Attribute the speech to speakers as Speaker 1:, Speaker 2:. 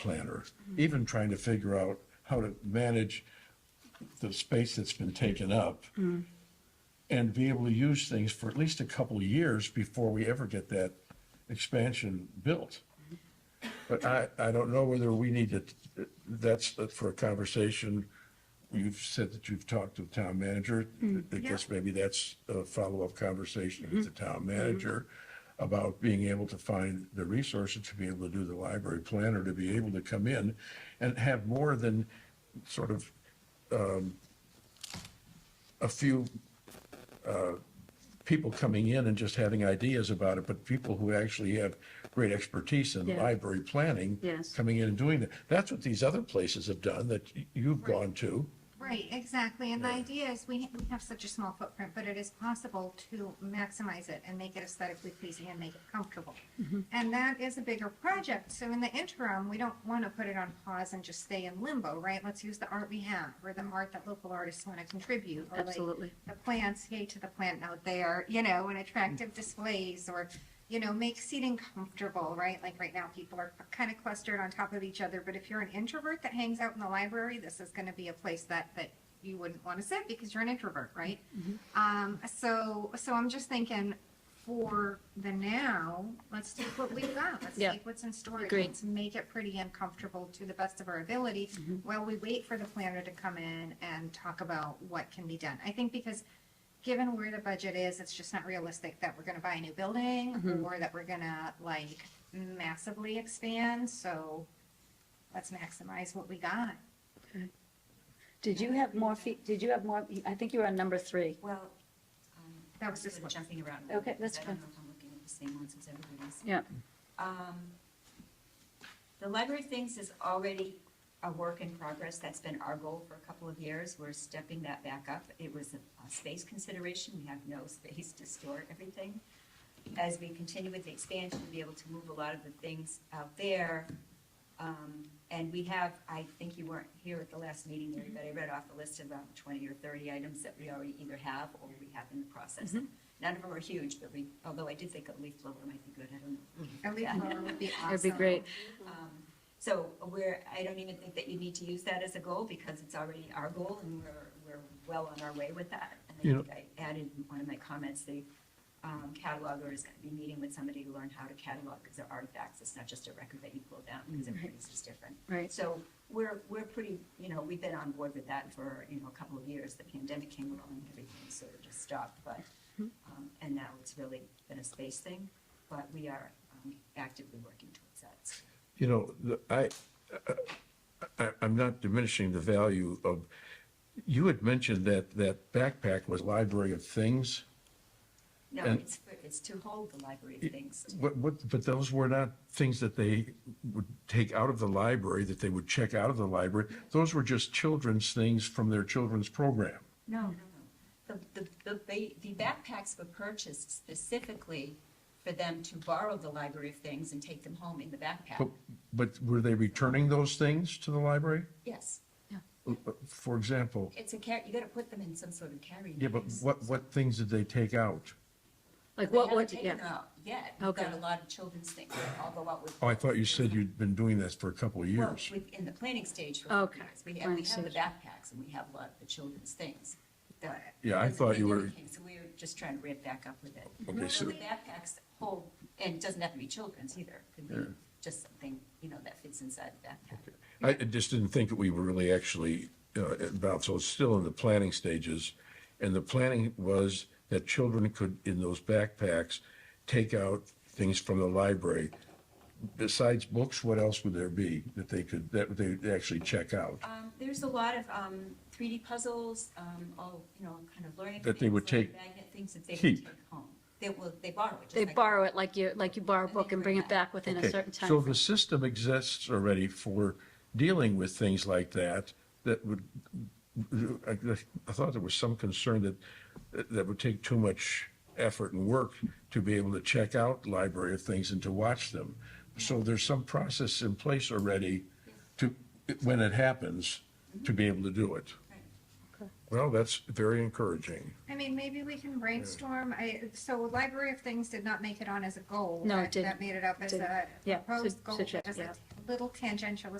Speaker 1: planner, even trying to figure out how to manage the space that's been taken up and be able to use things for at least a couple of years before we ever get that expansion built. But I, I don't know whether we need to, that's for a conversation. You've said that you've talked to the town manager. I guess maybe that's a follow-up conversation with the town manager about being able to find the resources to be able to do the library planner, to be able to come in and have more than sort of um, a few uh, people coming in and just having ideas about it, but people who actually have great expertise in
Speaker 2: Yeah.
Speaker 1: library planning.
Speaker 2: Yes.
Speaker 1: Coming in and doing that. That's what these other places have done that y- you've gone to.
Speaker 3: Right, exactly, and the idea is, we, we have such a small footprint, but it is possible to maximize it and make it aesthetically pleasing and make it comfortable. And that is a bigger project, so in the interim, we don't wanna put it on pause and just stay in limbo, right? Let's use the art we have, or the art that local artists wanna contribute, or like
Speaker 2: Absolutely.
Speaker 3: the plants, yay to the plant out there, you know, and attractive displays, or, you know, make seating comfortable, right? Like right now, people are kind of clustered on top of each other, but if you're an introvert that hangs out in the library, this is gonna be a place that, that you wouldn't wanna sit because you're an introvert, right? Um, so, so I'm just thinking, for the now, let's take what we've got, let's
Speaker 2: Yeah.
Speaker 3: take what's in storage.
Speaker 2: Agreed.
Speaker 3: Let's make it pretty and comfortable to the best of our ability
Speaker 2: Mm-hmm.
Speaker 3: while we wait for the planner to come in and talk about what can be done. I think because given where the budget is, it's just not realistic that we're gonna buy a new building
Speaker 2: Mm-hmm.
Speaker 3: or that we're gonna like massively expand, so let's maximize what we got.
Speaker 2: Did you have more fee, did you have more, I think you were on number three.
Speaker 4: Well, um,
Speaker 3: That was just
Speaker 4: sort
Speaker 3: one.
Speaker 4: of jumping around. a
Speaker 2: Okay,
Speaker 4: little bit,
Speaker 2: that's
Speaker 4: 'cause I don't
Speaker 2: fine.
Speaker 4: know if I'm looking at the same ones as everybody else.
Speaker 2: Yeah.
Speaker 4: Um, The library things is already a work in progress. That's been our goal for a couple of years. We're stepping that back up. It was a a space consideration. We have no space to store everything. As we continue with the expansion, we'll be able to move a lot of the things out there. Um, And we have, I think you weren't here at the last meeting, Mary, but I read off a list of about twenty or thirty items that we already either have or we have in the process. None of them are huge, but we, although I did think a leaf blower might be good, I don't know.
Speaker 3: A leaf blower would be awesome.
Speaker 2: That'd be great.
Speaker 1: Mm-hmm.
Speaker 4: Um, So we're, I don't even think that you need to use that as a goal because it's already our goal and we're, we're well on our way with that. And I
Speaker 1: You know-
Speaker 4: think I added in one of my comments, the um, cataloger is going to be meeting with somebody to learn how to catalog because they're artifacts. It's not just a record that you pull down because everything's just different.
Speaker 2: Right.
Speaker 4: So we're, we're pretty, you know, we've been on board with that for, you know, a couple of years. The pandemic came along and everything sort of just stopped, but,
Speaker 1: Mm-hmm.
Speaker 4: um, and now it's really been a space thing, but we are um, actively working towards that. So
Speaker 1: You know, the- I, I, I'm not diminishing the value of, you had mentioned that, that backpack was library of things.
Speaker 4: No,
Speaker 1: And-
Speaker 4: it's, for- it's to hold the library of things. to-
Speaker 1: What, what, but those were not things that they would take out of the library, that they would check out of the library. Those were just children's things from their children's program.
Speaker 4: No, no, no. The, the- the, the, the backpacks were purchased specifically for them to borrow the library of things and take them home in the
Speaker 1: But,
Speaker 4: backpack.
Speaker 1: but were they returning those things to the library?
Speaker 4: Yes,
Speaker 1: For example,
Speaker 4: it's a car, you gotta put them in some sort of carry.
Speaker 1: yeah, but
Speaker 4: bags.
Speaker 1: what, what things did they take out?
Speaker 2: Like
Speaker 4: They
Speaker 2: what,
Speaker 4: haven't
Speaker 2: what,
Speaker 4: taken them
Speaker 2: yeah.
Speaker 4: out yet. We've
Speaker 2: Okay.
Speaker 4: got a lot of children's things that all go out with.
Speaker 1: Oh, I thought you said you'd been doing this for a couple of
Speaker 4: Well,
Speaker 1: years.
Speaker 4: with- in the planning stage for a couple
Speaker 2: Okay,
Speaker 4: years. We have, we
Speaker 2: planning
Speaker 4: have the
Speaker 2: stage.
Speaker 4: backpacks and we have a lot of the children's things. that-
Speaker 1: Yeah, I
Speaker 4: that
Speaker 1: thought you
Speaker 4: they
Speaker 1: were-
Speaker 4: came, So we were just trying to ramp back up with it.
Speaker 1: Okay, so-
Speaker 4: The backpacks hold, and it doesn't have to be children's either. Could be just something, you know, that fits inside the backpack.
Speaker 1: I I just didn't think that we were really actually uh, about, so it's still in the planning stages. And the planning was that children could, in those backpacks, take out things from the library. Besides books, what else would there be that they could, that they actually check out?
Speaker 4: Um, there's a lot of, um, three D puzzles, um, all, you know, kind of learning.
Speaker 1: That they would
Speaker 4: things, learning
Speaker 1: take-
Speaker 4: Magnet things that they would
Speaker 1: keep.
Speaker 4: take home. They will, they borrow it. just
Speaker 2: They
Speaker 4: like-
Speaker 2: borrow it like you, like you borrow a book and bring it back within a
Speaker 1: Okay,
Speaker 2: certain
Speaker 1: So
Speaker 2: time.
Speaker 1: the system exists already for dealing with things like that, that would, I I thought there was some concern that, that would take too much effort and work to be able to check out library of things and to watch them. So there's some process in place already to, when it happens, to be able to do it.
Speaker 4: Right.
Speaker 1: Well, that's very encouraging.
Speaker 3: I mean, maybe we can brainstorm, I, so Library of Things did not make it on as a goal.
Speaker 2: No, it
Speaker 3: That-
Speaker 2: didn't.
Speaker 3: That made it up as
Speaker 2: Didn't.
Speaker 3: a
Speaker 2: Yeah,
Speaker 3: proposed
Speaker 2: su-
Speaker 3: goal,
Speaker 2: suggest-
Speaker 3: as
Speaker 2: yeah.
Speaker 3: a little tangential